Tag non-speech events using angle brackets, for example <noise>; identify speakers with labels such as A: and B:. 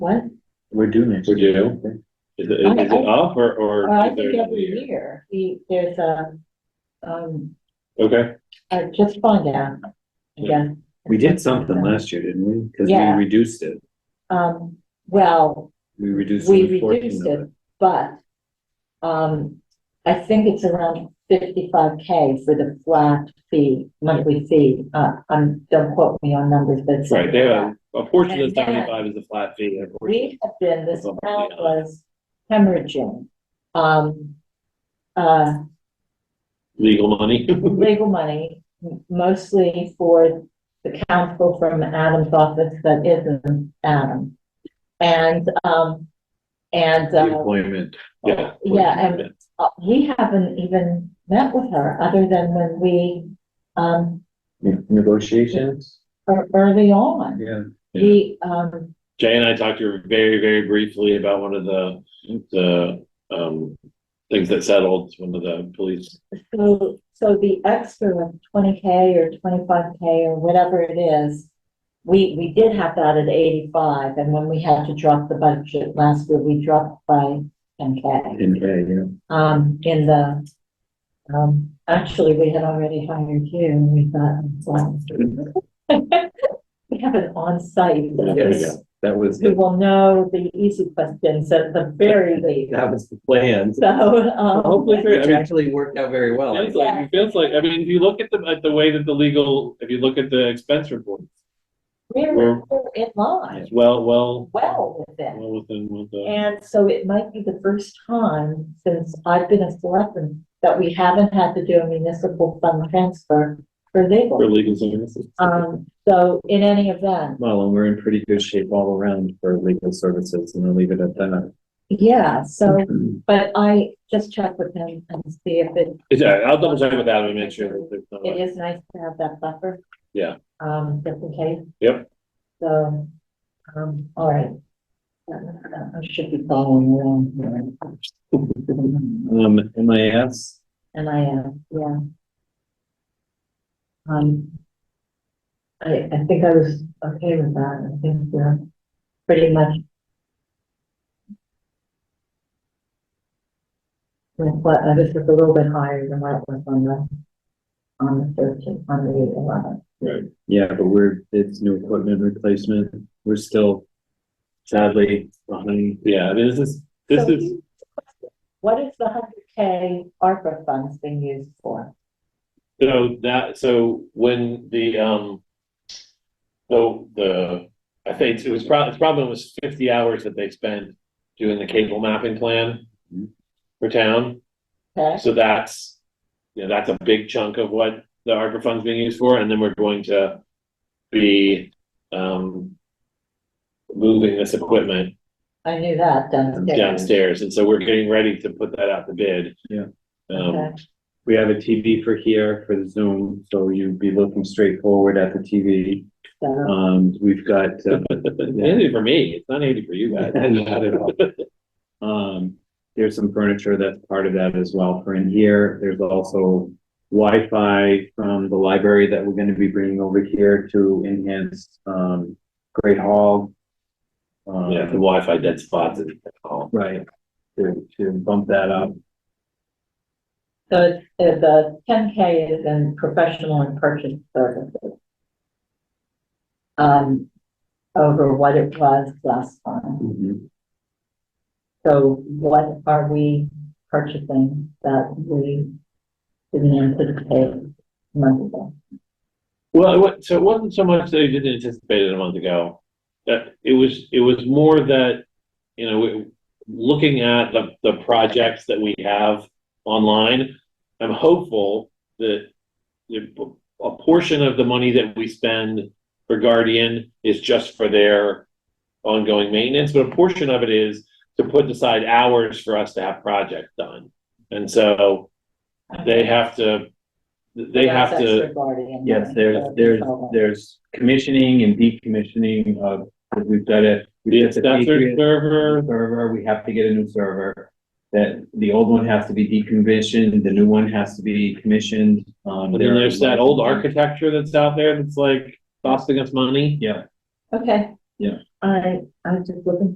A: What?
B: We're due next.
C: We're
B: year,
C: due.
B: aren't we?
C: Is it, is it
A: I-
C: off or, or?
A: Well, I
C: is there
A: think every
C: another
A: year, he, there's a, um,
C: Okay,
A: I just found out again.
B: We did something last year, didn't we? Cause
A: Yeah.
B: we reduced it.
A: Um, well,
B: We reduced.
A: we
B: the 14
A: reduced
B: of
A: it, but, um, I think it's around fifty-five K for the flat fee, monthly fee. Uh, um, don't quote me on numbers, but. it's-
C: right, they have, a portion of
A: And then-
C: seventy-five is the flat fee. and a portion-
A: we have been, this town
C: Something else.
A: was hemorrhaging, um, uh,
C: Legal money.
A: legal money, m- mostly for the counsel from Adam's office that isn't Adam. And, um, and,
B: The
A: uh,
B: Employment.
C: Yeah.
A: Yeah, and- uh, we haven't even met with her, other than when we, um,
B: Ne- Negotiations,
A: ear- early on.
B: yeah.
C: Yeah.
A: We, um,
C: Jay and I talked to her very, very briefly about one of the, the, um, things that settled, one of the police.
A: so, so the extra twenty K or twenty-five K or whatever it is, we, we did have that at eighty-five, and when we had to drop the budget last year, we dropped by ten K.
B: In, yeah,
A: um, in the, um, actually, we had already hired you, and we thought, wow. <laughs> We have an on-site that
C: There we
A: is-
C: go.
B: that was,
A: who
B: the-
A: will know the easy questions at the very least,
B: that was the plan.
A: so, um,
C: Hopefully, I
B: Which
C: mean,
B: actually worked out very well. I
C: It feels
B: think.
C: like, it feels like, I mean, if you look at the, at the way that the legal, if you look at the expense report,
A: we're we're in line,
C: it's well, well,
A: well within.
C: well within, with the,
A: And so it might be the first time since I've been a selectman that we haven't had to do a municipal fund transfer for
C: for
A: legal.
C: legal services.
A: Um, so in any event,
B: Well, and we're in pretty good shape all around for legal services and I'll leave it at that.
A: Yeah, so, but I just checked with him and see if it,
C: Yeah, I'll double check with Adam and make sure that there's no.
A: it is nice to have that buffer.
C: Yeah.
A: Um, just in case.
C: Yep.
A: So, um, all right. Uh, I should be following along here.
B: Um, MIS,
A: And I am, yeah. Um. I, I think I was okay with that. I think we're pretty much. With what, uh, this is a little bit higher than what it was on the, on the thirteen, on the eleven.
B: yeah, but we're, it's new equipment replacement. We're still sadly behind.
C: Yeah, this is, this
A: So,
C: is,
A: What is the hundred K ARPA funds being used for?
C: so that, so when the, um, so the, I think it was probably, it's probably was fifty hours that they spent doing the cable mapping plan
B: Mhm.
C: for town.
A: Okay,
C: So that's, you know, that's a big chunk of what the ARPA fund's being used for, and then we're going to be, um, moving this equipment
A: I knew that downstairs.
C: downstairs, and so we're getting ready to put that out to bid.
B: Yeah.
C: <laughs> Um,
A: Okay.
B: We have a TV for here for the Zoom, so you'd be looking straight forward at the TV.
A: So,
B: Um, we've got, uh,
C: handy for me, it's not handy for
B: <laughs>
C: you <laughs> guys.
B: Not at all. Um, there's some furniture that's part of that as well for in here. There's also Wi-Fi from the library that we're gonna be bringing over here to enhance, um, Great Hall. Um,
C: Yeah, the Wi-Fi dead spots and all.
B: Right, to, to bump that up.
A: so it's, uh, the ten K is in professional and purchase services. Um, over what it was last time.
B: Mm-hmm.
A: So what are we purchasing that we didn't anticipate months ago?
C: Well, it wa- so it wasn't so much that I didn't anticipate it a month ago, that it was, it was more that, you know, we- looking at the, the projects that we have online, I'm hopeful that the, a portion of the money that we spend for Guardian is just for their ongoing maintenance, but a portion of it is to put aside hours for us to have projects done. And so they have to, they have
A: That's
C: to.
A: extra guardian
B: Yes,
A: money,
B: there's,
A: so
B: there's,
A: it's
B: there's commissioning and decommissioning of, we've got a.
C: The
B: it's a Patriot
C: assessor server,
B: Server, we have to get a new server. That the old one has to be decommissioned, the new one has to be commissioned. Um,
C: and
B: there
C: then
B: are-
C: there's that old architecture that's out there that's like costing us money.
B: Yeah.
A: all- Okay.
B: Yeah.
A: I, I'm just looking